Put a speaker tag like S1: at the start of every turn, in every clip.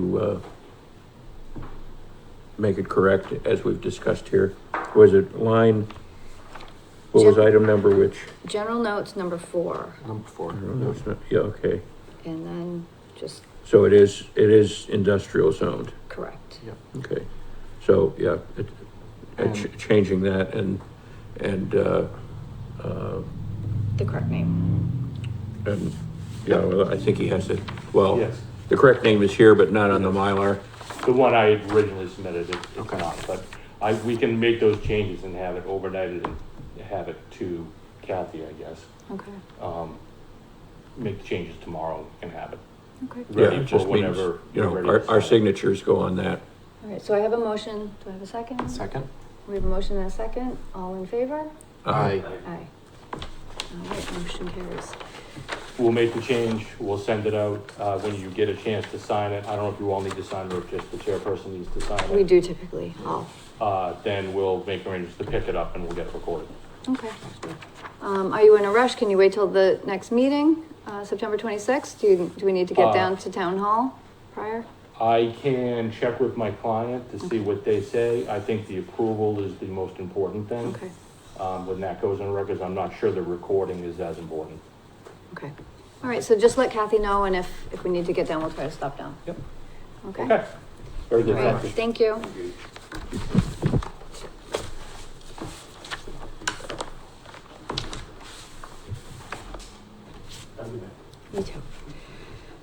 S1: to, uh, make it correct as we've discussed here. Was it line, what was
S2: Gen-
S1: item number which?
S2: General notes number four,
S3: Number
S1: I
S3: four.
S1: don't know, it's not- Yeah, okay.
S2: and then just
S1: So it is, it is industrial zoned,
S2: correct.
S1: okay. So, yeah, it, it ch-
S2: Um.
S3: And-
S1: changing that and, and, uh, uh,
S2: The correct name.
S1: and, yeah, well, I think he has it, well,
S4: Yes,
S1: the correct name is here, but not on the Mylar.
S4: the one I originally submitted, it- it's
S3: Okay.
S4: not, but I, we can make those changes and have it overnighted and have it to Kathy, I guess.
S2: Okay,
S4: Um, Make the changes tomorrow and have it
S2: okay.
S1: Yeah,
S4: ready
S1: it
S4: for
S1: just means,
S4: whenever.
S1: You
S4: we're
S1: know,
S4: ready
S1: our,
S4: to
S1: our
S4: sign.
S1: signatures go on that.
S2: All right, so I have a motion. Do I have a second?
S3: Second?
S2: We have a motion and a second. All in favor?
S1: Uh,
S2: Aye. All right, motion carries.
S4: We'll make the change, we'll send it out, uh, when you get a chance to sign it, I don't know if you all need to sign it or if just the chairperson needs to sign
S2: We
S4: it.
S2: do typically, all.
S4: Uh, then we'll make arrangements to pick it up and we'll get it recorded.
S2: Okay. Um, are you in a rush? Can you wait till the next meeting, uh, September twenty-sixth? Do you, do we need to get
S4: Uh, Mm-hmm.
S2: down to town hall prior?
S4: I can check with my client to see what they say, I think the approval is the most important thing.
S2: Okay,
S4: Um, when that goes on records, I'm not sure the recording is as important.
S2: okay. All right, so just let Kathy know, and if, if we need to get down, we'll try to stop down.
S4: Yep.
S2: Okay?
S4: Okay. Very good,
S2: Great,
S4: thank you.
S2: thank you. Me too.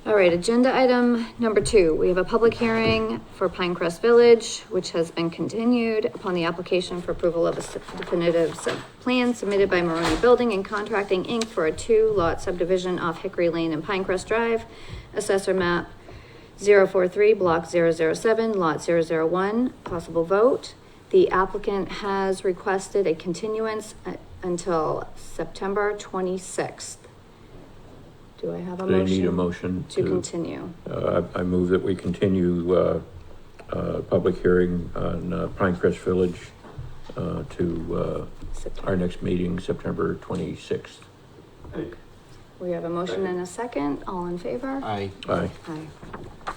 S2: All right, agenda item number two, we have a public hearing for Pinecrest Village, which has been continued upon the application for approval of a s- definitive sub- plan submitted by Maroni Building and Contracting, Inc. for a two-lot subdivision off Hickory Lane and Pinecrest Drive, assessor map 043, block 007, lot 001. possible vote. The applicant has requested a continuance uh, until September twenty-sixth. Do I have a
S1: They
S2: motion?
S1: need a motion
S2: To
S1: to,
S2: continue.
S1: uh, I I move that we continue, uh, uh, public hearing on uh, Pinecrest Village, uh, to, uh, our next meeting, September twenty-sixth.
S2: We have a motion and a second, all in favor?
S3: Aye.
S1: Aye.
S2: Aye.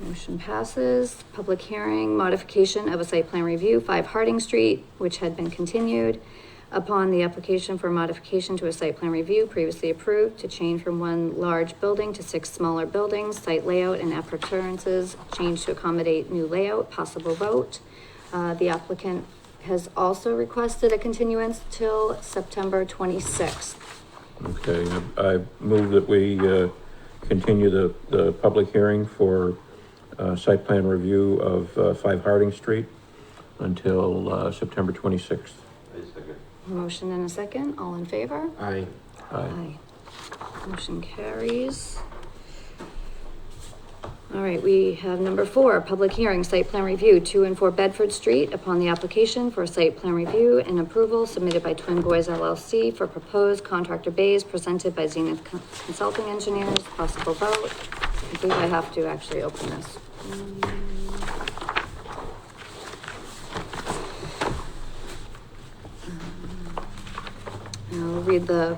S2: Motion passes. Public hearing, modification of a site plan review, five Harding Street, which had been continued upon the application for modification to a site plan review previously approved to change from one large building to six smaller buildings, site layout and appurtenances changed to accommodate new layout, possible vote. Uh, the applicant has also requested a continuance till September twenty-sixth.
S1: Okay, I I move that we, uh, continue the, the public hearing for, uh, site plan review of, uh, Five Harding Street until, uh, September twenty-sixth.
S2: Motion and a second, all in favor?
S3: Aye.
S1: Aye.
S2: Aye. Motion carries. All right, we have number four, public hearing, site plan review, two and four Bedford Street, upon the application for site plan review and approval submitted by Twin Boys LLC for proposed contractor bays presented by Zenith Con- Consulting Engineers, possible vote. I think I have to actually open this. Um, And I'll read the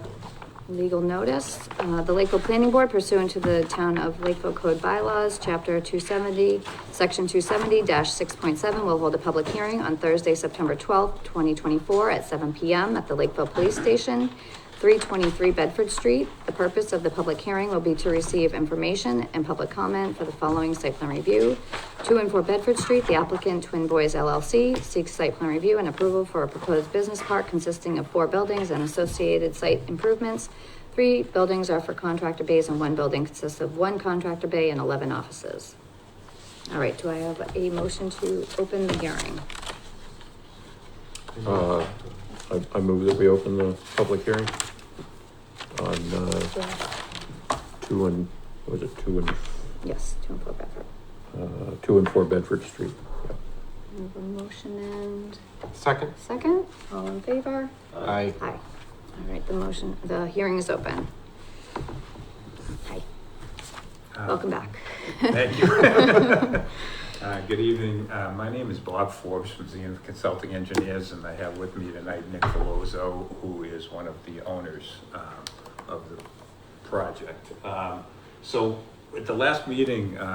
S2: legal notice. Uh, The Lakeville Planning Board pursuant to the Town of Lakeville Code Bylaws, Chapter 270, Section 270-6.7 will hold a public hearing on Thursday, September 12th, 2024 at 7 PM at the Lakeville Police Station, 323 Bedford Street. The purpose of the public hearing will be to receive information and public comment for the following site plan review. Two and four Bedford Street, the applicant Twin Boys LLC seeks site plan review and approval for a proposed business park consisting of four buildings and associated site improvements. Three buildings are for contractor bays and one building consists of one contractor bay and eleven offices. All right, do I have a motion to open the hearing?
S1: Uh, I, I move that we open the public hearing on, uh, two and, was it two and,
S2: Yes, two and four Bedford.
S1: uh, two and four Bedford Street?
S2: We have a motion and
S3: Second?
S2: second, all in favor?
S3: Aye.
S2: Aye. All right, the motion, the hearing is open. Hi, welcome back.
S5: Oh, Thank you. Uh, Good evening. Uh, My name is Bob Forbes from Zenith Consulting Engineers, and I have with me tonight Nick Filozzo, who is one of the owners um, of the project. Um, So at the last meeting, uh,